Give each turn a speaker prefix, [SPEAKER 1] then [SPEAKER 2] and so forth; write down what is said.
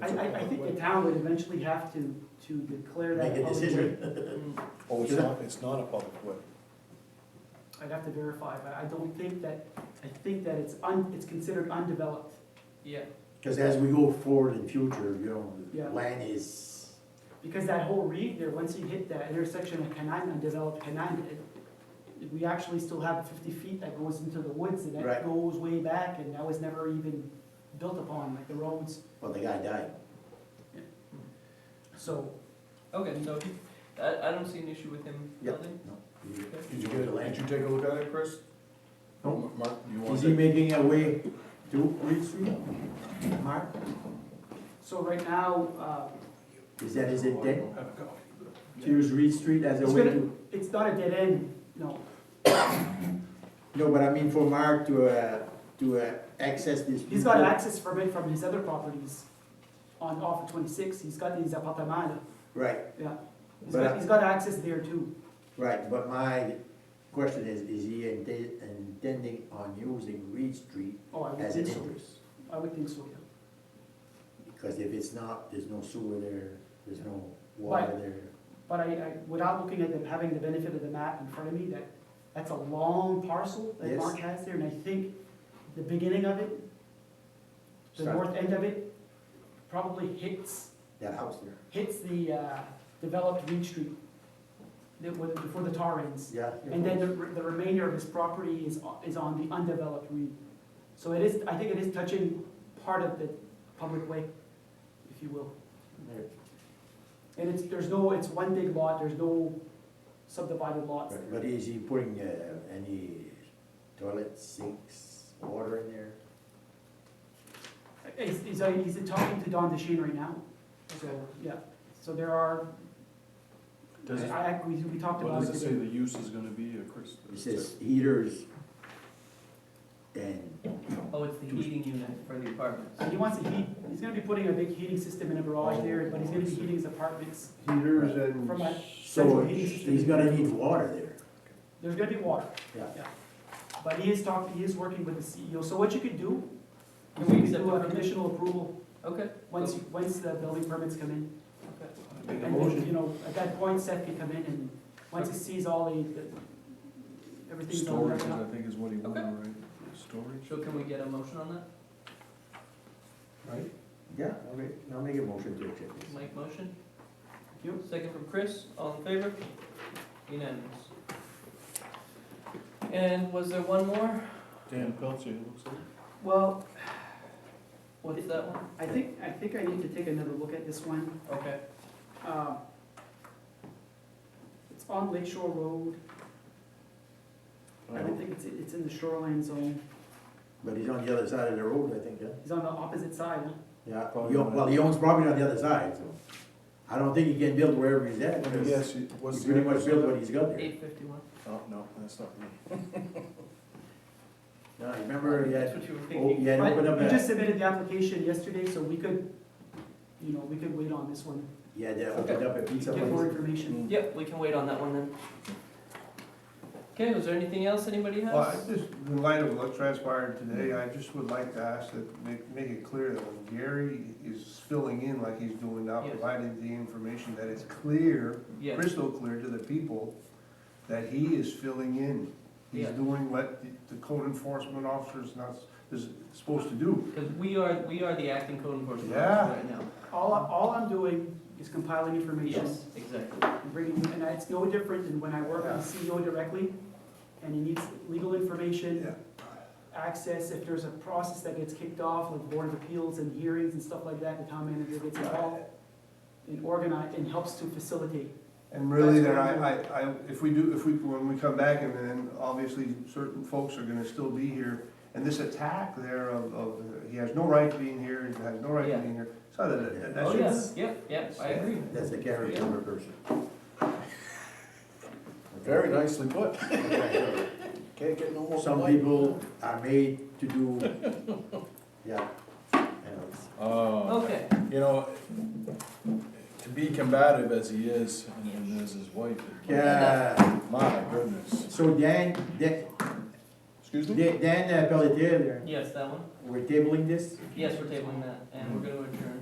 [SPEAKER 1] I, I, I think the town would eventually have to, to declare that.
[SPEAKER 2] Make a
[SPEAKER 1] public way.
[SPEAKER 2] decision.
[SPEAKER 3] Oh, it's not, it's not a public way.
[SPEAKER 1] I'd have to verify, but I don't think that, I think that it's un, it's considered undeveloped.
[SPEAKER 4] Yeah,
[SPEAKER 2] Because as we go forward in future, you
[SPEAKER 1] Yeah.
[SPEAKER 2] know, land is,
[SPEAKER 1] Because that whole reed there, once you hit that intersection of Canine, undeveloped Canine, it- we actually still have fifty feet that goes into the woods and that
[SPEAKER 2] Right.
[SPEAKER 1] goes way back and that was never even built upon, like the roads,
[SPEAKER 2] well, the guy died.
[SPEAKER 1] so.
[SPEAKER 4] okay, so he, I, I don't see an issue with him
[SPEAKER 2] Yep.
[SPEAKER 4] building.
[SPEAKER 2] No.
[SPEAKER 3] Did you get, did you take a look at it, Chris?
[SPEAKER 2] No.
[SPEAKER 3] Mark, you want
[SPEAKER 2] Is he
[SPEAKER 3] to?
[SPEAKER 2] making a way to Reed Street? Mark,
[SPEAKER 1] So right now, uh,
[SPEAKER 2] is that his intent,
[SPEAKER 3] Have a go.
[SPEAKER 2] to use Reed Street as a
[SPEAKER 1] It's
[SPEAKER 2] way
[SPEAKER 1] gonna-
[SPEAKER 2] to?
[SPEAKER 1] uh, it's not a dead end, no,
[SPEAKER 2] No, but I mean for Mark to, uh, to uh, access this.
[SPEAKER 1] He's got access permit from his other properties on, off of twenty-six, he's got these apartaments,
[SPEAKER 2] Right,
[SPEAKER 1] yeah. He's
[SPEAKER 2] But
[SPEAKER 1] got,
[SPEAKER 2] I-
[SPEAKER 1] he's got access there too.
[SPEAKER 2] right, but my question is, is he inte- intending on using Reed Street
[SPEAKER 1] Oh, I would
[SPEAKER 2] as an
[SPEAKER 1] think so.
[SPEAKER 2] entrance?
[SPEAKER 1] I would think so, yeah.
[SPEAKER 2] Because if it's not, there's no sewer there, there's no water
[SPEAKER 1] Right.
[SPEAKER 2] there.
[SPEAKER 1] But I, I, without looking at them, having the benefit of the map in front of me, that, that's a long parcel that
[SPEAKER 2] Yes.
[SPEAKER 1] Mark has there, and I think the beginning of it, the
[SPEAKER 2] Start-
[SPEAKER 1] north end of it, probably hits,
[SPEAKER 2] That house there.
[SPEAKER 1] hits the, uh, developed Reed Street, that, was- before the tar ends.
[SPEAKER 2] Yeah.
[SPEAKER 1] And then the, the remainder of his property is, o- is on the undeveloped reed. So it is, I think it is touching part of the public way, if you will. And it's, there's no, it's one big lot, there's no subdivided lots.
[SPEAKER 2] Right, But is he putting uh, any toilet sinks, water in there?
[SPEAKER 1] He's, he's, uh, he's talking to Don DeShane right now, so, yeah, so there are,
[SPEAKER 3] Does it,
[SPEAKER 1] I, I- we, we talked
[SPEAKER 3] what
[SPEAKER 1] about
[SPEAKER 3] does
[SPEAKER 1] it
[SPEAKER 3] it say
[SPEAKER 1] today.
[SPEAKER 3] the use is gonna be, uh, Chris?
[SPEAKER 2] He says heaters and,
[SPEAKER 4] Oh, it's the heating unit for the apartments.
[SPEAKER 1] So he wants to heat, he's gonna be putting a big heating system in a garage
[SPEAKER 3] Oh,
[SPEAKER 1] there, but he's gonna be
[SPEAKER 3] I see.
[SPEAKER 1] heating his apartments
[SPEAKER 5] Heaters and.
[SPEAKER 1] from a
[SPEAKER 2] so
[SPEAKER 1] central heating system.
[SPEAKER 2] he's gonna need water there.
[SPEAKER 1] There's gonna be water.
[SPEAKER 2] Yeah.
[SPEAKER 1] But he is talking, he is working with the CEO, so what you could do,
[SPEAKER 4] Can
[SPEAKER 1] is
[SPEAKER 4] we
[SPEAKER 1] you could
[SPEAKER 4] accept
[SPEAKER 1] do
[SPEAKER 4] the
[SPEAKER 1] a
[SPEAKER 4] permit?
[SPEAKER 1] conditional approval,
[SPEAKER 4] Okay,
[SPEAKER 1] once, you- once the building permits come in.
[SPEAKER 4] okay.
[SPEAKER 3] Make a
[SPEAKER 1] And then, you
[SPEAKER 3] motion,
[SPEAKER 1] know, at that point, Seth can come in and, once he sees all the, the, everything's all
[SPEAKER 3] storage,
[SPEAKER 1] wrapped
[SPEAKER 3] I
[SPEAKER 1] up.
[SPEAKER 3] think is what he wanted,
[SPEAKER 4] Okay.
[SPEAKER 3] right? Storage?
[SPEAKER 4] So can we get a motion on that?
[SPEAKER 2] Right. Yeah, I'll make, I'll make a motion to accept this.
[SPEAKER 4] Mike motion?
[SPEAKER 1] You?
[SPEAKER 4] Second from Chris, all in favor? Unanimous. And was there one more?
[SPEAKER 3] Dan Pelcher, it looks like.
[SPEAKER 1] Well,
[SPEAKER 4] What's that one?
[SPEAKER 1] I think, I think I need to take another look at this one,
[SPEAKER 4] Okay,
[SPEAKER 1] uh, it's on Lake Shore Road, I don't think it's, it's in the shoreline zone,
[SPEAKER 2] But he's on the other side of the road, I think, huh?
[SPEAKER 1] he's on the opposite side, huh?
[SPEAKER 2] Yeah,
[SPEAKER 3] Probably
[SPEAKER 2] he own-
[SPEAKER 3] not.
[SPEAKER 2] well, he owns property on the other side, so I don't think he can build wherever he's at,
[SPEAKER 3] Let me
[SPEAKER 2] because
[SPEAKER 3] guess, Uh, it- what's
[SPEAKER 2] he
[SPEAKER 3] the?
[SPEAKER 2] pretty much
[SPEAKER 3] address
[SPEAKER 2] built
[SPEAKER 3] of
[SPEAKER 2] what he's got there.
[SPEAKER 4] eight fifty-one.
[SPEAKER 3] that? Oh, no, that's not me.
[SPEAKER 2] Now, remember, he
[SPEAKER 4] That's
[SPEAKER 2] had,
[SPEAKER 4] what you were
[SPEAKER 2] oh, he
[SPEAKER 4] thinking.
[SPEAKER 2] had
[SPEAKER 1] But
[SPEAKER 2] opened up
[SPEAKER 1] You just
[SPEAKER 2] a,
[SPEAKER 1] submitted the application yesterday, so we could, you know, we could wait on this one,
[SPEAKER 2] he had uh, opened up a pizza
[SPEAKER 1] get more
[SPEAKER 2] place.
[SPEAKER 1] information.
[SPEAKER 4] Yep, we can wait on that one then. Okay, was there anything else anybody has?
[SPEAKER 5] Well, I just, in light of what transpired today, I just would like to ask that, make, make it clear that when Gary is filling in like he's doing now,
[SPEAKER 4] Yes.
[SPEAKER 5] providing the information that is clear,
[SPEAKER 4] Yes.
[SPEAKER 5] crystal clear to the people, that he is filling in. He's
[SPEAKER 4] Yeah.
[SPEAKER 5] doing what the- the code enforcement officer is not, s- is supposed to do.
[SPEAKER 4] Because we are, we are the acting code enforcement
[SPEAKER 5] Yeah.
[SPEAKER 4] officer right now.
[SPEAKER 1] All, I- all I'm doing is compiling information
[SPEAKER 4] Yes, exactly.
[SPEAKER 1] and bringing, and it's no different than when I work with the CEO directly, and he needs legal information,
[SPEAKER 5] Yeah.
[SPEAKER 1] access, if there's a process that gets kicked off, like board of appeals and hearings and stuff like that, the town manager gets involved and organize, and helps to facilitate.
[SPEAKER 5] And really,
[SPEAKER 1] That's
[SPEAKER 5] then I,
[SPEAKER 1] what
[SPEAKER 5] I, I, if we do, if we, when we come back, and then obviously certain folks are gonna still be here, and this attack there of, of, uh, he has no right to be in here, he has no right to be in here, so that- that,
[SPEAKER 4] Oh,
[SPEAKER 5] that should.
[SPEAKER 4] yes, yep, yep, I agree.
[SPEAKER 2] That's the character of a person.
[SPEAKER 3] Very nicely put.
[SPEAKER 2] Okay.
[SPEAKER 3] Can't get no more.
[SPEAKER 2] Some people are made to do, yeah. I know.
[SPEAKER 3] Oh,
[SPEAKER 4] Okay,
[SPEAKER 3] you know, to be combative as he is, and then there's his wife. it-
[SPEAKER 2] Yeah,
[SPEAKER 3] My goodness.
[SPEAKER 2] so Dan, Dan,
[SPEAKER 3] Excuse me?
[SPEAKER 2] Dan uh, Pelletier,
[SPEAKER 4] yes, that one.
[SPEAKER 2] we're tabling this?
[SPEAKER 4] Yes, we're tabling that, and we're gonna adjourn.